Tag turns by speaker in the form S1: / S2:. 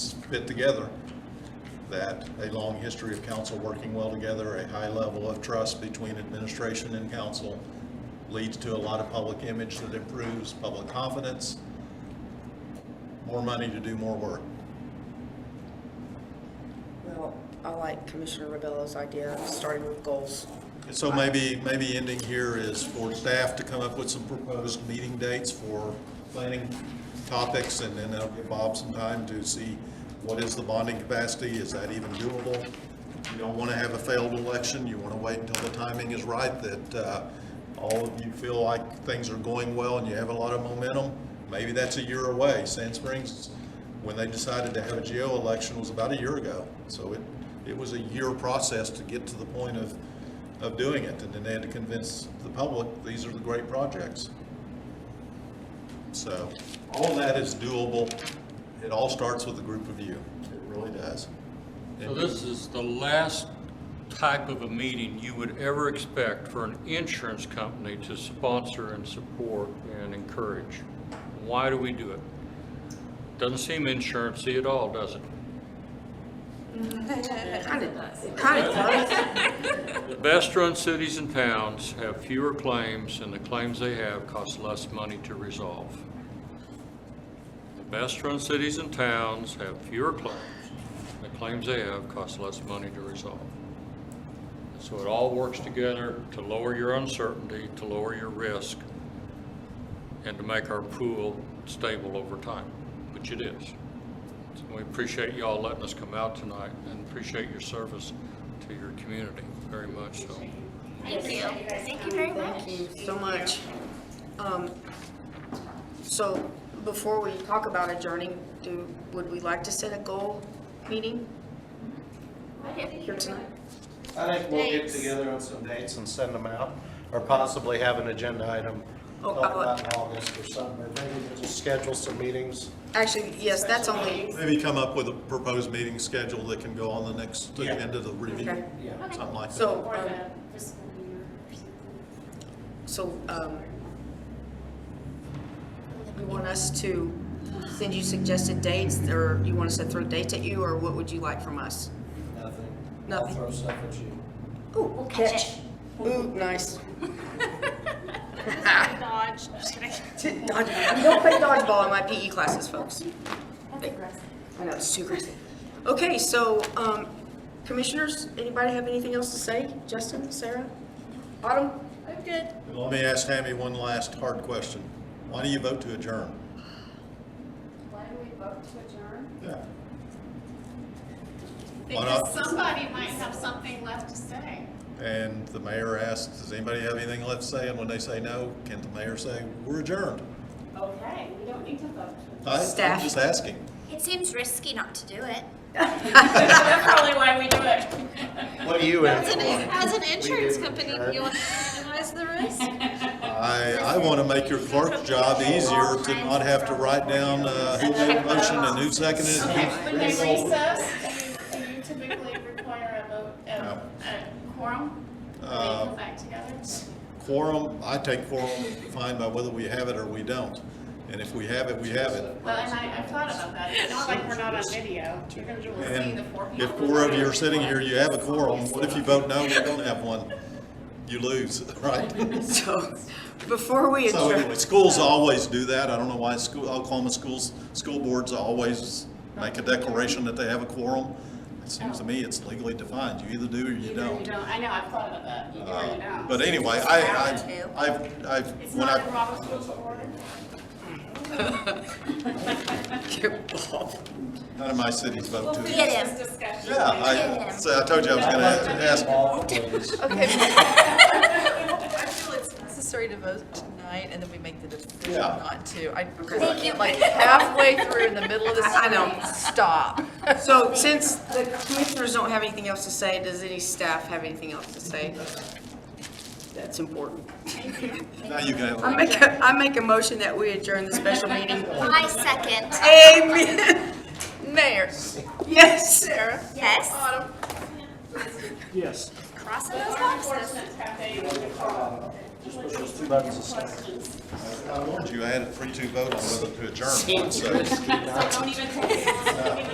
S1: fit together. That a long history of council working well together, a high level of trust between administration and council leads to a lot of public image that improves public confidence, more money to do more work.
S2: Well, I like Commissioner Rebello's idea of starting with goals.
S1: So maybe, maybe ending here is for staff to come up with some proposed meeting dates for planning topics, and then that'll give Bob some time to see what is the bonding capacity, is that even doable? You don't want to have a failed election, you want to wait until the timing is right, that uh, all of you feel like things are going well and you have a lot of momentum. Maybe that's a year away. Sand Springs, when they decided to have a GO election, was about a year ago. So it, it was a year process to get to the point of of doing it, and then they had to convince the public, these are the great projects. So, all that is doable, it all starts with a group of you, it really does.
S3: So this is the last type of a meeting you would ever expect for an insurance company to sponsor and support and encourage. Why do we do it? Doesn't seem insurancy at all, does it?
S2: Kind of, kind of does.
S3: The best-run cities and towns have fewer claims, and the claims they have cost less money to resolve. The best-run cities and towns have fewer claims, and the claims they have cost less money to resolve. So it all works together to lower your uncertainty, to lower your risk, and to make our pool stable over time, which it is. We appreciate y'all letting us come out tonight and appreciate your service to your community very much so.
S4: Thank you. Thank you very much.
S2: Thank you so much. Um, So before we talk about adjourning, do, would we like to set a goal meeting here tonight?
S5: I think we'll get
S4: Thanks.
S5: together on some dates and send them out, or possibly have an agenda item
S2: Oh,
S5: talk
S2: I would-
S5: about in August or something, or maybe we'll just schedule some meetings.
S2: Actually, yes, that's only,
S1: Maybe come up with a proposed meeting schedule that can go on the next
S5: Yeah.
S1: agenda to review,
S2: okay.
S5: Yeah.
S1: something like that.
S2: So,
S6: Or
S2: um,
S6: the fiscal year or something.
S2: so um, you want us to send you suggested dates, or you want us to throw dates at you, or what would you like from us?
S5: Nothing.
S2: Nothing.
S5: I'll throw stuff at you.
S2: Ooh, catch. Ooh, nice.
S4: Dodge. Just kidding.
S2: Dodge- We don't play dodgeball in my PE classes, folks.
S6: That's aggressive.
S2: I know, it's too aggressive. Okay, so, um, commissioners, anybody have anything else to say? Justin, Sarah? Autumn? I'm good.
S1: Let me ask Tammy one last hard question. Why do you vote to adjourn?
S6: Why do we vote to adjourn?
S1: Yeah. Why not?
S7: Because somebody might have something left to say.
S1: And the mayor asks, does anybody have anything left to say? And when they say no, can the mayor say, we're adjourned?
S7: Okay, we don't need to vote to adjourn.
S1: I- I'm
S2: Staff.
S1: Just asking.
S4: It seems risky not to do it.
S7: That's probably why we do it.
S5: What do you in
S4: As an,
S5: for?
S4: as an insurance
S5: didn't
S4: company,
S5: adjourn.
S4: you want to minimize the risk?
S1: I, I want to make your clerk's job easier to not have to write down uh, who made a motion and who seconded it.
S7: When they recess, do you- do you typically require a vote, a a quorum? Do we
S1: Uh,
S7: come back together?
S1: Quorum, I take quorum defined by whether we have it or we don't. And if we have it, we have it.
S7: Well, and I, I've thought about that. It's not like we're not on video. You're gonna just see
S1: And
S7: the four people.
S1: if four of you are sitting here, you have a quorum. What if you vote no, you don't have one? You lose, right?
S2: So, before we
S1: So
S2: adjourn,
S1: anyway, schools always do that. I don't know why school, Oklahoma schools, school boards always make a declaration that they have a quorum. It seems to me it's legally defined. You either do or you
S7: Either you
S1: don't.
S7: don't, I know, I've thought about that. You do or you don't.
S1: But anyway, I,
S4: Hour two.
S1: I, I've, I've,
S7: It's
S1: when
S7: not in
S1: I,
S7: Robert's rules of order.
S1: none of my cities vote to
S4: Get
S1: it.
S4: him.
S7: This discussion.
S1: Yeah, I, so I told you I was gonna ask,
S5: Ball, please.
S8: I feel it's necessary to vote tonight, and then we make the decision
S1: Yeah.
S8: not to. I
S4: Thank you.
S8: Like halfway through, in the middle of the
S2: I- I know.
S8: meeting, stop.
S2: so since the commissioners don't have anything else to say, does any staff have anything else to say? That's important.
S1: now you can have.
S2: I make, a I make a motion that we adjourn the special meeting.
S4: I second.
S2: Amen.
S8: Mayor,
S2: Yes, Sarah?
S4: Yes.
S5: Yes.
S4: Crossing those boxes.
S7: Enforcement cafe, you would
S5: Just push those two buttons and stop.
S7: questions.
S1: I warned you, I had a three-two vote on whether to adjourn, so.
S7: Don't even take it.